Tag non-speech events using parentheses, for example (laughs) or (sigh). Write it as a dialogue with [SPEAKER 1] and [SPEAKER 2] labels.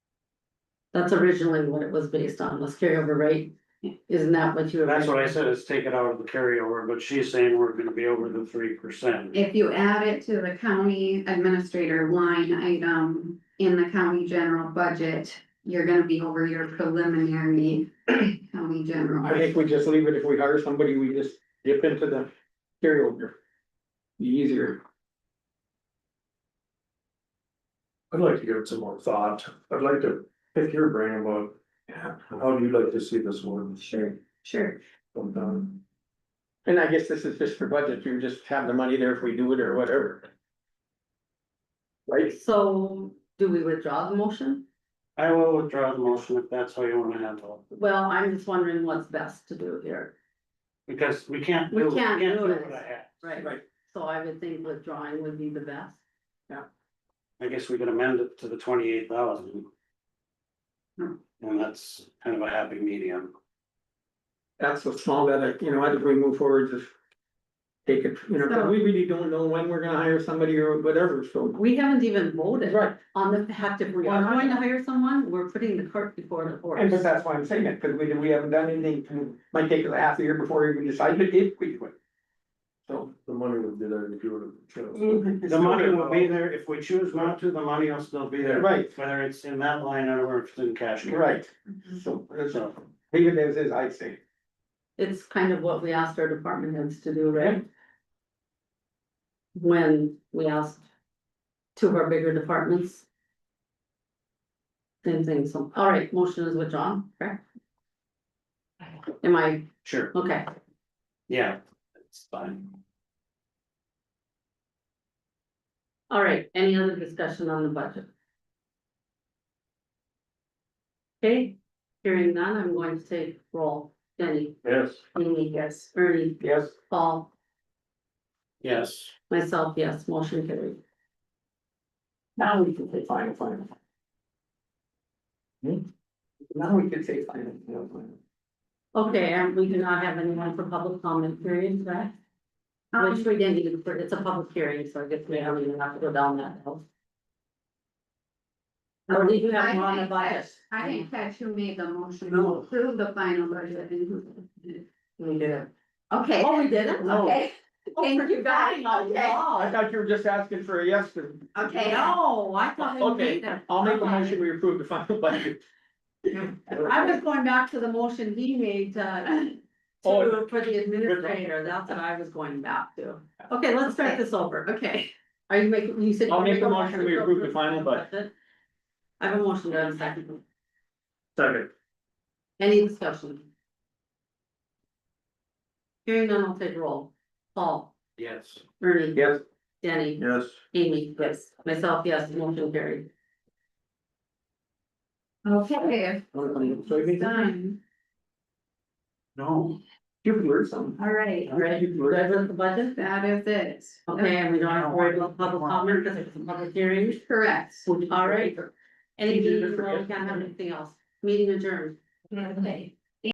[SPEAKER 1] That's originally what it was based on, was carryover rate. Isn't that what you?
[SPEAKER 2] That's what I said, it's taken out of the carryover, but she's saying we're gonna be over the three percent.
[SPEAKER 3] If you add it to the county administrator line item in the county general budget, you're gonna be over your preliminary county
[SPEAKER 4] I
[SPEAKER 3] general.
[SPEAKER 4] think we just leave it, if we hire somebody, we just dip into the carryover. Be Easier,
[SPEAKER 5] I'd like to give it some more thought. I'd like to pick your brain about, yeah, how do you like to see this one
[SPEAKER 3] Sure, sure.
[SPEAKER 5] come down?
[SPEAKER 4] and I guess this is just for budget, you just have the money there if we do it or whatever. Right,
[SPEAKER 1] So do we withdraw the motion?
[SPEAKER 2] I will withdraw the motion if that's how you wanna handle it,
[SPEAKER 1] Well, I'm just wondering what's best to do here.
[SPEAKER 2] because we can't.
[SPEAKER 1] We
[SPEAKER 2] do-
[SPEAKER 1] can't do
[SPEAKER 2] do
[SPEAKER 1] it.
[SPEAKER 2] what I had.
[SPEAKER 1] Right.
[SPEAKER 4] Right.
[SPEAKER 1] So I would think withdrawing would be the best.
[SPEAKER 2] I guess we could amend it to the twenty-eight thousand.
[SPEAKER 3] Hmm.
[SPEAKER 2] And that's kind of a happy medium.
[SPEAKER 4] that's what's small that, I- you know, as we move forward, just. Take it, you know, 'cause we really don't know when we're gonna hire somebody or whatever, so.
[SPEAKER 1] We haven't even voted
[SPEAKER 4] Right,
[SPEAKER 1] on the fact if we're going to hire someone, we're putting the cart before the horse.
[SPEAKER 4] and but that's why I'm saying it, because we, we haven't done anything, might take a half a year before we decide if if we do it. So.
[SPEAKER 5] The money would be there if you would have. chose.
[SPEAKER 2] The money will be there, if we choose not to, the money will still be there.
[SPEAKER 4] Right.
[SPEAKER 2] Whether it's in that line item or if it's in cash.
[SPEAKER 4] Right, so, so, leave it as is, I'd say.
[SPEAKER 1] It's kind of what we asked our department heads to do,
[SPEAKER 4] Yeah.
[SPEAKER 1] right? When we asked two of our bigger departments. Same thing, so, all right, motion is withdrawn, correct? Am I,
[SPEAKER 2] Sure,
[SPEAKER 1] okay,
[SPEAKER 2] yeah, it's fine.
[SPEAKER 1] all right, any other discussion on the budget? Okay, hearing none, I'm going to take roll, Jenny,
[SPEAKER 5] Yes.
[SPEAKER 1] Amy, yes, Ernie,
[SPEAKER 4] Yes.
[SPEAKER 1] Paul,
[SPEAKER 2] Yes,
[SPEAKER 1] myself, yes, motion carried.
[SPEAKER 4] Now we can say final, final. Now we can say final, final, final.
[SPEAKER 1] Okay, and we do not have anyone for public comment period, right?
[SPEAKER 3] Um,
[SPEAKER 1] Which we didn't even, it's a public hearing, so I guess we don't even have to go down that hill. Or we do have one on the budget.
[SPEAKER 3] I didn't catch who made the motion to approve the final budget and who.
[SPEAKER 1] We did.
[SPEAKER 3] Okay,
[SPEAKER 1] Oh, we did it?
[SPEAKER 3] okay, thank you guys, okay,
[SPEAKER 4] I thought you were just asking for a yes, to-
[SPEAKER 3] okay.
[SPEAKER 1] No, I thought we made
[SPEAKER 4] okay,
[SPEAKER 1] that.
[SPEAKER 4] I'll make a motion, we approve the final budget.
[SPEAKER 1] I was going back to the motion he made, uh,
[SPEAKER 4] (laughs) Oh.
[SPEAKER 1] to, for the administrator, that's what I was going back to. Okay, let's start this over.
[SPEAKER 3] Okay,
[SPEAKER 1] Are you making, you said.
[SPEAKER 4] I'll make a motion, we approve the final budget.
[SPEAKER 1] I have a motion, do I have a second?
[SPEAKER 5] Second.
[SPEAKER 1] Any discussion? Hearing none, I'll take roll. Paul,
[SPEAKER 2] yes.
[SPEAKER 1] Ernie,
[SPEAKER 4] Yes,
[SPEAKER 1] Danny,
[SPEAKER 5] Yes.
[SPEAKER 1] Amy, yes, myself, yes, motion carried.
[SPEAKER 3] okay.
[SPEAKER 4] so you mean,
[SPEAKER 3] Done,
[SPEAKER 2] No.
[SPEAKER 4] you can learn something.
[SPEAKER 3] all right,
[SPEAKER 1] All right,
[SPEAKER 4] You can learn.
[SPEAKER 1] that was the budget.
[SPEAKER 3] that is it.
[SPEAKER 1] Okay, and we don't have to worry about public comment because it's a public hearing.
[SPEAKER 3] Correct.
[SPEAKER 1] All right. Anything, we can't have anything else. Meeting adjourned.
[SPEAKER 3] Okay.